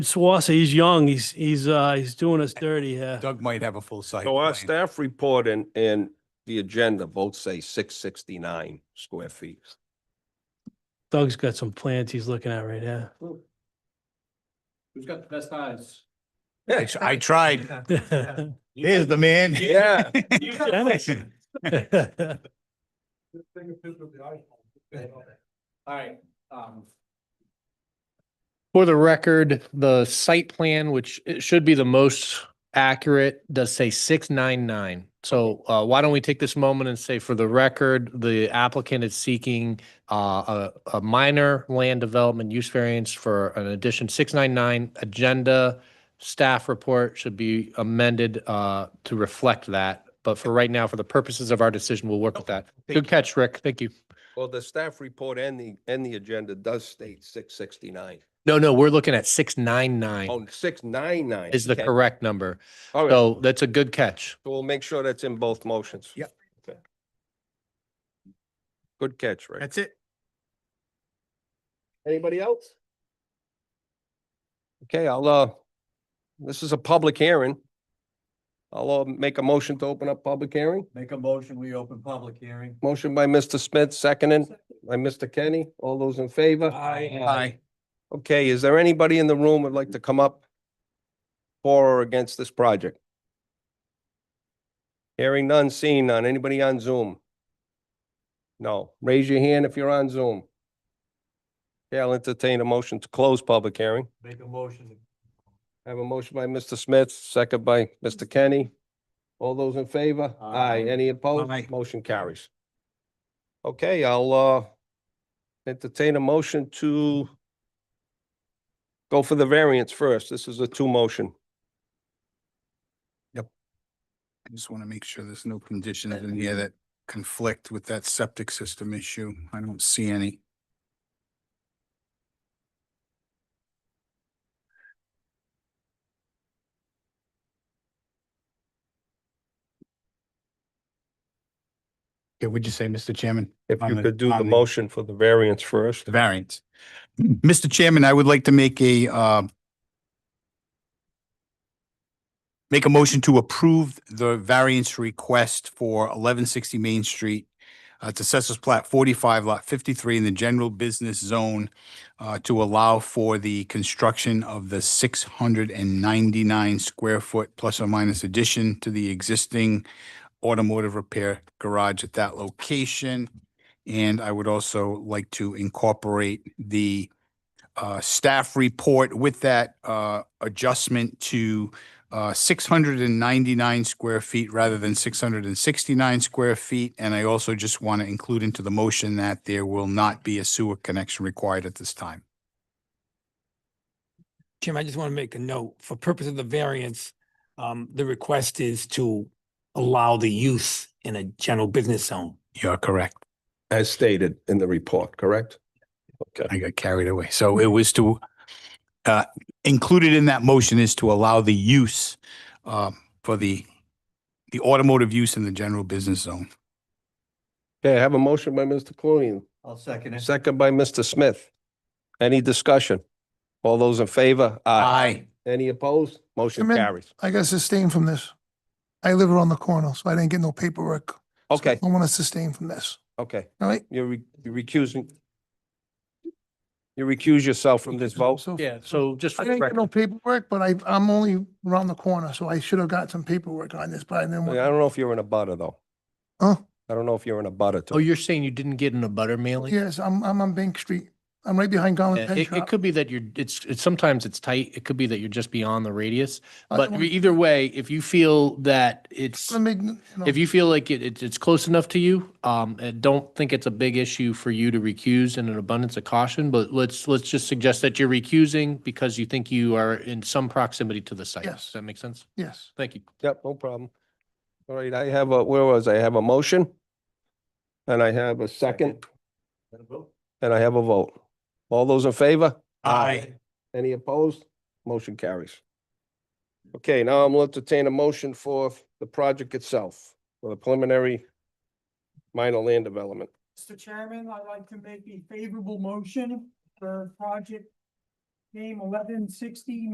Swasey, he's young. He's, he's, uh, he's doing us dirty here. Doug might have a full site. So our plan. staff report and, and the agenda both say six sixty-nine square feet. Doug's got some plans he's looking at right here. Who's got the best eyes? I tr- I tried. There's the man. Yeah. Alright, um. For the record, the site plan, which it should be the most accurate, does say six nine nine. So uh, why don't we take this moment and say, for the record, the applicant is seeking uh, a, a minor land development use variance for an addition six nine nine agenda. Staff report should be amended uh, to reflect that. But for right now, for the purposes of our decision, we'll work with that. Good catch, Rick. Thank you. Well, the staff report and the, and the agenda does state six sixty-nine. No, no, we're looking at six nine nine Oh, six nine nine. is the correct number. All right, so So that's a good catch. we'll make sure that's in both motions. Yep. Okay. Good catch, Rick. That's it. Anybody else? Okay, I'll, uh, this is a public hearing. I'll, uh, make a motion to open up public hearing. Make a motion, we open public hearing. Motion by Mr. Smith, seconded by Mr. Kenny. All those in favor? Aye. Okay, is there anybody in the room would like to come up for or against this project? Hearing none, seeing none. Anybody on Zoom? No. Raise your hand if you're on Zoom. Okay, I'll entertain a motion to close public hearing. Make a motion. I have a motion by Mr. Smith, second by Mr. Kenny. All those in favor? Aye. Aye. Any Aye. opposed? Motion carries. Okay, I'll, uh, entertain a motion to go for the variance first. This is a two motion. I just want to make sure there's no conditions in here that conflict with that septic system issue. I don't see any. Okay, would you say, Mr. Chairman? If On you the- could do the on the- motion for the variance first. the variance. Mr. Chairman, I would like to make a, uh, make a motion to approve the variance request for eleven sixty Main Street. Uh, it's assessors plat forty-five, lot fifty-three in the general business zone, uh, to allow for the construction of the six hundred and ninety-nine square foot plus or minus addition to the existing automotive repair garage at that location. And I would also like to incorporate the uh, staff report with that uh, adjustment to uh, 699 square feet rather than 669 square feet. And I also just want to include into the motion that there will not be a sewer connection required at this time. Jim, I just want to make a note. For purpose of the variance, um, the request is to allow the use in a general business zone. You're correct. As stated in the report, correct? Okay, I got carried away. So it was to, uh, included in that motion is to allow the use um, for the, the automotive use in the general business zone. okay, I have a motion by Mr. Clooney, I'll second it. second by Mr. Smith. Any discussion? All those in favor? Any opposed? Motion Chairman? carries. I got sustained from this. I live around the corner, so I didn't get no paperwork. So Okay, I want to sustain from this, okay. all right? You're re- you're recusing. You recuse yourself from this vote? So Yeah, so just I for the didn't get no record, paperwork, but I, I'm only around the corner, so I should have got some paperwork on this, but I didn't I want. don't know if you're in a butter though. Huh? I don't know if you're in a butter oh, to. you're saying you didn't get in a butter mailing? Yes, I'm, I'm on Bank Street. I'm right behind Garland Yeah, Pet It, it Shop. could be that you're, it's, it's, sometimes it's tight. It could be that you're just beyond the radius. I But don't re- either way, if you feel that it's, wanna make n- you know, if you feel like it, it's, it's close enough to you, um, and don't think it's a big issue for you to recuse in an abundance of caution, but let's, let's just suggest that you're recusing because you think you are in some proximity to the site. Yes. Does that make sense? Yes, Thank you. Yep, no problem. All right, I have a, where was I? I have a motion. And I have a second and I have a vote. All those in favor? Aye. Any opposed? Motion carries. Okay, now I'm going to entertain a motion for the project itself, for the preliminary minor land development. Mr. Chairman, I'd like to make a favorable motion for project name eleven sixty